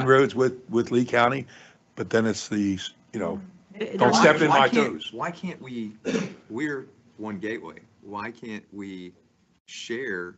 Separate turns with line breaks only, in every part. inroads with, with Lee County, but then it's the, you know,
Mm.
It-
Don't
it-
step in
Why- why
my
can't-
toes.
Why can't we, we're one gateway. Why can't we share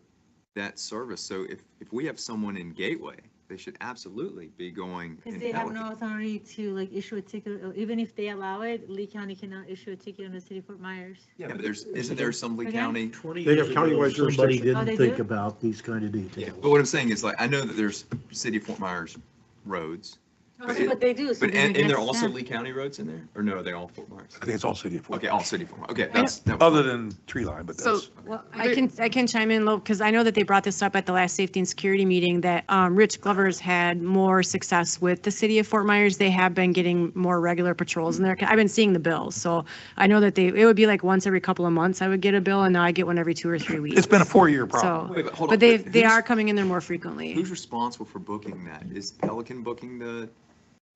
that service? So if, if we have someone in Gateway, they should absolutely be going
Because
in
they have no
Pelican.
authority to like issue a ticket, uh, even if they allow it, Lee County cannot issue a ticket on the city of Fort Myers.
Yeah, but there's, isn't there some Lee
Again?
County?
They have countywide
Somebody
jurisdiction.
Oh, they
didn't think
do?
about these kind of
Yeah,
details.
but what I'm saying is like, I know that there's City of Fort Myers roads, But it-
But they do. so
but,
then
and,
I
and there are
guess
also
that-
Lee County roads in there? Or no, are they all Fort Myers?
I think it's all city of Fort.
Okay, all City of Fort Myers. Okay,
know-
that's. that was-
Other than tree line, but
So,
that's,
well,
There-
I can, I can chime in, because I know that they brought this up at the last safety and security meeting, that um, Rich Glover's had more success with the city of Fort Myers. They have been getting more regular patrols in there. I've been seeing the bills, so I know that they, it would be like once every couple of months I would get a bill, and now I get one every two or three weeks.
it's been a four-year problem.
So,
Wait, but hold on.
but they, they
who's-
are coming in there more frequently.
Who's responsible for booking that? Is Pelican booking the,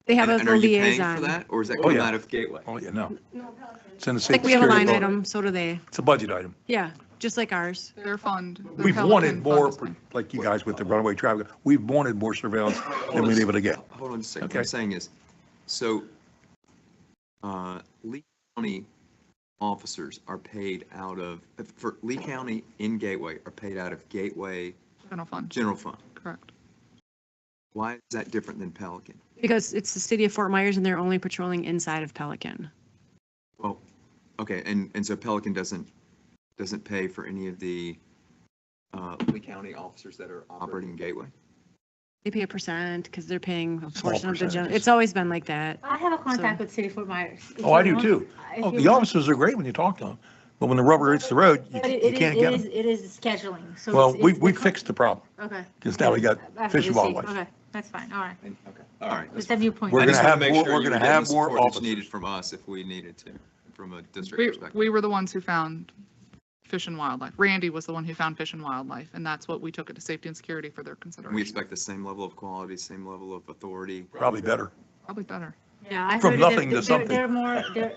They have
and
a
and are
a
you paying for
liaison. I
that? Or is that
Oh,
coming
yeah.
out of Gateway?
Oh, yeah, no. It's in the same.
think we have a line item, so do they.
It's a budget item.
Yeah, just like ours.
Their fund. their
We've wanted
Pelican fund
more,
is-
like you guys with the runaway traffic, we've wanted more surveillance than we've been able to get.
Hold on just a second. What
Okay.
I'm saying is, so, uh, Lee County officers are paid out of, for Lee County in Gateway are paid out of Gateway
General fund,
General Fund.
correct.
Why is that different than Pelican?
Because it's the city of Fort Myers, and they're only patrolling inside of Pelican.
Well, okay, and, and so Pelican doesn't, doesn't pay for any of the, uh, Lee County officers that are operating Gateway?
They pay a percent because they're paying a
Small
portion of the general.
percentages.
It's always been like that.
I have a contact with city of Fort Myers. If
Oh, I
you
do
want-
too.
if
Oh,
you
the
want-
officers are great when you talk to them, but when the rubber hits the road, you
But it-
you
it is-
can't
it
get
is-
them.
It is scheduling, so.
Well,
it's-
we,
it's
we
the co-
fixed the problem,
Okay.
because now we got
I- I
fish and
see.
wildlife.
Okay, that's fine, all right.
And- Okay, all right. that's
It's a new point.
We're
I
gonna
just wanna
have
make
more-
sure
we're
you were
gonna
getting
have
the
more
support that's
officers.
Needed from us if we needed to, from a district
We,
perspective.
we were the ones who found fish and wildlife. Randy was the one who found fish and wildlife, and that's what we took it to safety and security for their
And we
consideration.
expect the same level of quality, same level of authority.
Probably better.
Probably better.
Yeah, I
From
heard that
nothing to
they're-
something.
They're more, they're.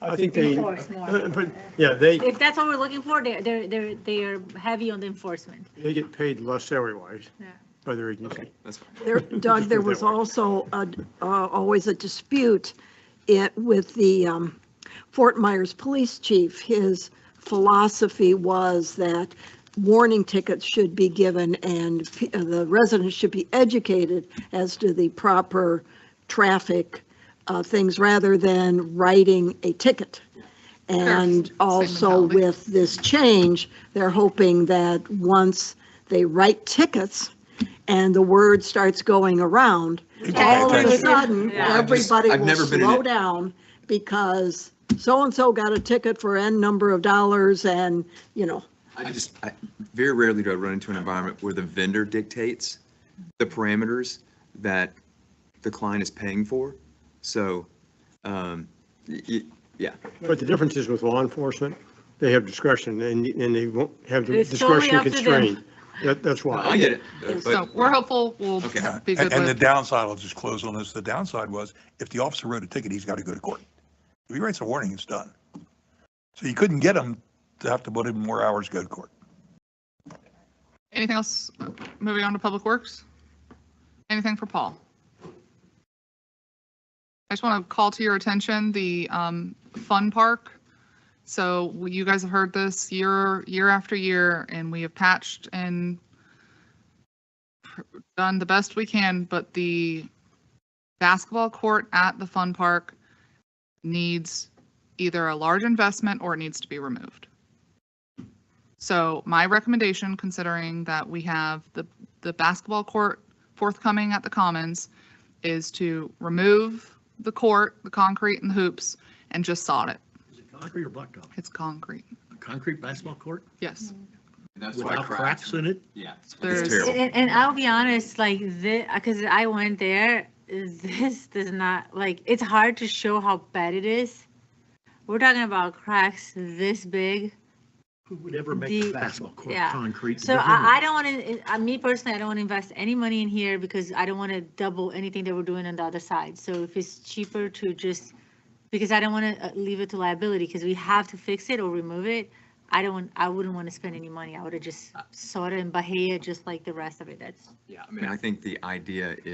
I think they,
enforce more.
uh, but, yeah, they,
If that's what we're looking for, they're, they're, they're, they are heavy on the enforcement.
they get paid less salary-wise
Yeah.
by their agency.
That's fine.
There, Doug, there was also a- uh, always a dispute it- with the um, Fort Myers Police Chief. His philosophy was that warning tickets should be given and p- uh, the residents should be educated as to the proper traffic uh, things rather than writing a ticket. And
Same
also
mentality.
with this change, they're hoping that once they write tickets, and the word starts going around,
People pay
all of a
attention.
sudden,
Yeah.
everybody
I've
will
never been in
slow
it.
down because so-and-so got a ticket for N number of dollars and, you know,
I just, I, very rarely do I run into an environment where the vendor dictates the parameters that the client is paying for. So, um, y- y- yeah,
But the difference is with law enforcement, they have discretion and, and they won't have the
It's totally
discretion
up to them.
constrained. That, that's
I
why.
get it. but-
So we're hopeful we'll
Okay.
be
And
good
and the
with.
downside, I'll just close on this, the downside was, if the officer wrote a ticket, he's got to go to court. If he writes a warning, it's done. So you couldn't get him to have to put in more hours, to go to court.
Anything else? Moving on to Public Works? Anything for Paul? I just want to call to your attention the um, Fun Park. So you guys have heard this year, year after year, and we have patched and done the best we can, but the basketball court at the Fun Park needs either a large investment or it needs to be removed. So my recommendation, considering that we have the, the basketball court forthcoming at the Commons, is to remove the court, the concrete and the hoops, and just sod it.
Is it Concrete or blacktop?
It's concrete.
A concrete basketball court
Yes.
and that's why
without cracks in it?
Yeah.
There's-
It's terrible.
And, and I'll be honest, like this, because I went there, this does not, like, it's hard to show how bad it is. We're talking about cracks this big.
Who would ever make
The-
a basketball court
yeah.
concrete? to
So
begin with?
I, I don't want to, me personally, I don't want to invest any money in here because I don't want to double anything that we're doing on the other side. So if it's cheaper to just, because I don't want to leave it to liability because we have to fix it or remove it. I don't want, I wouldn't want to spend any money. I would have just sold it in Bahia, just like the rest of it. That's
Yeah, I mean, I think the idea